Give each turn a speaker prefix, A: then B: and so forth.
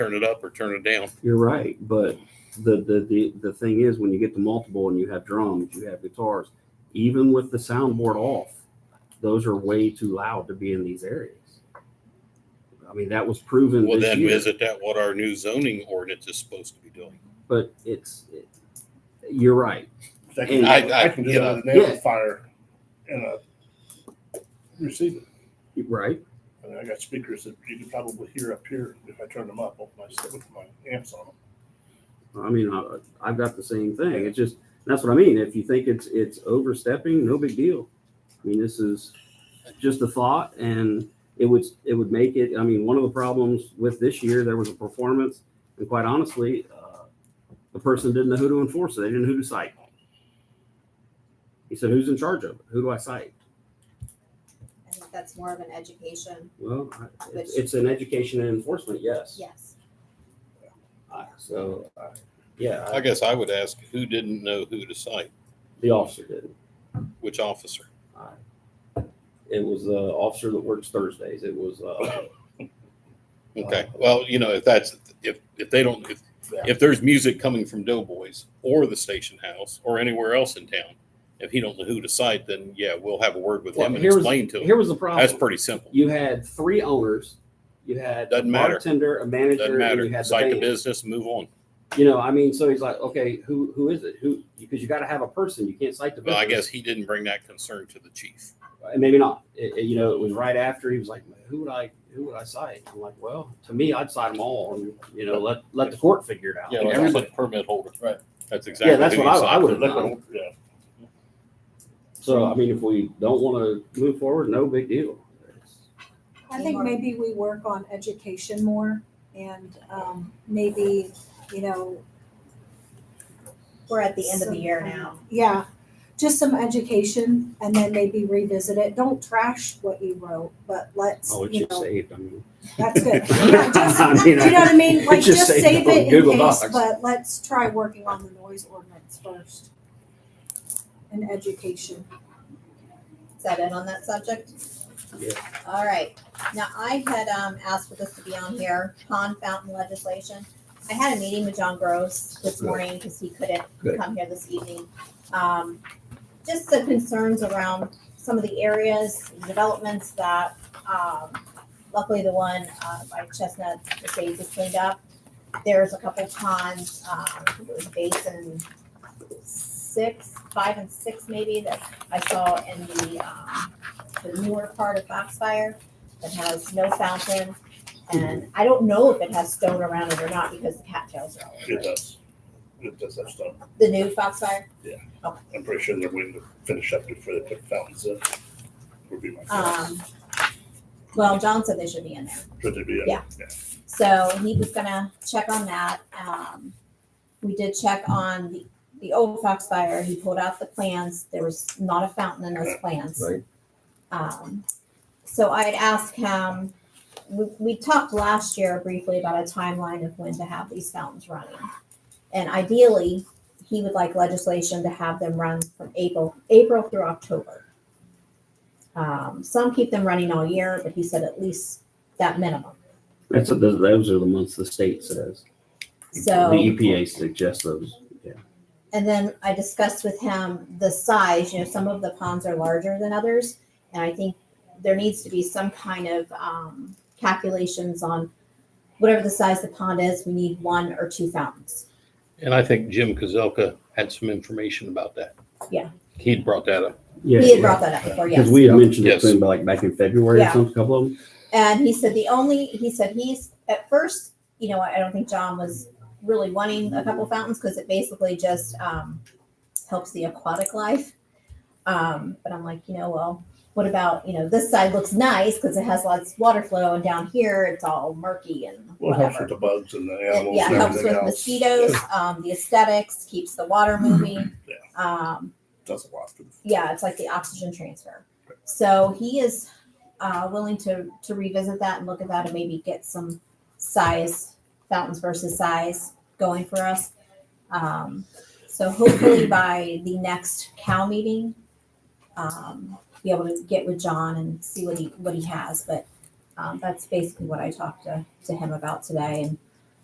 A: turn it up or turn it down.
B: You're right, but the, the the the thing is, when you get to multiple and you have drums, you have guitars, even with the soundboard off, those are way too loud to be in these areas. I mean, that was proven
A: Well,
B: this
A: then
B: year,
A: isn't that what our new zoning ordinance is supposed to be doing?
B: but it's. It, you're right.
C: They can,
B: I-
A: I-
C: I, can do
A: you
C: that
A: know,
C: with an
B: yeah.
C: amplifier and a receiver.
B: you're Right.
C: I mean, I got speakers that you could probably hear up here if I turned them up with my, with my amps on them.
B: I mean, I, I've got the same thing. It's just that's what I mean. If you think it's it's overstepping, no big deal. I mean, this is just a thought, and it would it would make it. I mean, one of the problems with this year, there was a performance, and quite honestly, uh, the person didn't know who to enforce it. They didn't know who to cite. He said, "Who's in charge of it? Who do I cite?"
D: I think that's more of an education,
B: Well, I- it's, it's an education and enforcement, yes.
D: yes.
B: I- So, I- yeah,
A: I
B: I,
A: guess I would ask who didn't know who to cite,
B: the officer did.
A: which officer?
B: It was the officer that works Thursdays. It was uh,
A: Okay, well, you know, if that's, if, if they don't, if, if there's music coming from Doughboys or the station house or anywhere else in town, if he don't know who to cite, then yeah, we'll have a word with him
B: Well,
A: and
B: here's-
A: explain to him.
B: here was the problem.
A: That's pretty simple.
B: You had three owners. You had a
A: Doesn't matter.
B: bartender, a manager,
A: Doesn't
B: and
A: matter.
B: you had the
A: Cite the
B: band.
A: business, move on.
B: You know, I mean, so he's like, okay, who who is it? Who because you got to have a person. You can't cite the.
A: Well, I guess
B: business.
A: he didn't bring that concern to the chief.
B: And maybe not. It- it- you know, it was right after he was like, who would I who would I cite? I'm like, well, to me, I'd cite them all, and you know, let let the court figure it out.
A: Yeah,
B: And
A: like
B: everybody-
A: permit holder.
C: Right.
A: That's exactly.
B: that's
A: who
B: what
A: you
B: I- I
A: cite.
B: would've
C: Look at
B: done.
C: them, yeah.
B: So I mean, if we don't want to move forward, no big deal.
E: I think maybe we work on education more and um, maybe, you know,
D: We're at the end of the year now.
E: yeah, just some education and then maybe revisit it. Don't trash what you wrote, but let's,
B: Oh, it's
E: you
B: just
E: know,
B: saved. I mean,
E: that's good. Yeah, just-
B: I mean,
E: Do you know what I mean? Like,
B: just
E: just
B: saved
E: save
B: up on
E: it in
B: Google
E: case,
B: Docs.
E: but let's try working on the noise ordinance first. And education.
D: Is that it on that subject?
B: Yeah.
D: All right. Now, I had, um, asked for this to be on here, pond fountain legislation. I had a meeting with John Gross this
B: Good.
D: morning because he couldn't
B: Good.
D: come here this evening. Um, just the concerns around some of the areas, developments that, um, luckily the one, uh, by Chestnut Estates is cleaned up. There's a couple ponds, um, I think it was basin six, five and six maybe that I saw in the, um, the newer part of Foxfire that has no fountain. And I don't know if it has stone around it or not because the cattails are all over
C: It
D: it.
C: does. It does that stuff.
D: The new Foxfire,
C: I'm pretty sure they're waiting to finish up before they put fountains in. Would be my guess.
D: um, well, John said they should be in there.
C: Should they be in?
D: yeah. So he was gonna check on that. Um, we did check on the, the old Foxfire. He pulled out the plans. There was not a fountain in those plans.
B: Right.
D: Um, so I had asked him, we, we talked last year briefly about a timeline of when to have these fountains running. And ideally, he would like legislation to have them run from April, April through October. Um, some keep them running all year, but he said at least that minimum.
B: That's what those, those are the months the state says.
D: So.
B: The EPA suggests those. Yeah.
D: And then I discussed with him the size, you know, some of the ponds are larger than others. And I think there needs to be some kind of um, calculations on whatever the size the pond is, we need one or two fountains.
A: And I think Jim Kozelka had some information about that.
D: Yeah.
A: He'd brought that up.
B: Yeah.
D: He had brought that up before,
B: Because
D: yes.
B: we had mentioned it
A: Yes.
B: to him like back in February or
D: Yeah.
B: something, a couple of them.
D: And he said the only, he said he's, at first, you know, I don't think John was really wanting a couple fountains because it basically just um, helps the aquatic life. Um, but I'm like, you know, well, what about, you know, this side looks nice because it has lots of water flow and down here it's all murky and
C: Well, it helps with
D: whatever.
C: the bugs and the
D: And,
C: animals
D: yeah,
C: and
D: it helps
C: everything
D: with
C: else.
D: mosquitoes, um, the aesthetics, keeps the water moving.
C: Yeah.
D: Um,
C: Does a lot for the
D: yeah, it's like the oxygen transfer. So he is uh, willing to to revisit that and look at that and maybe get some size fountains versus size going for us. Um, so hopefully by the next cow meeting, um, be able to get with John and see what he what he has. But um, that's basically what I talked to to him about today. And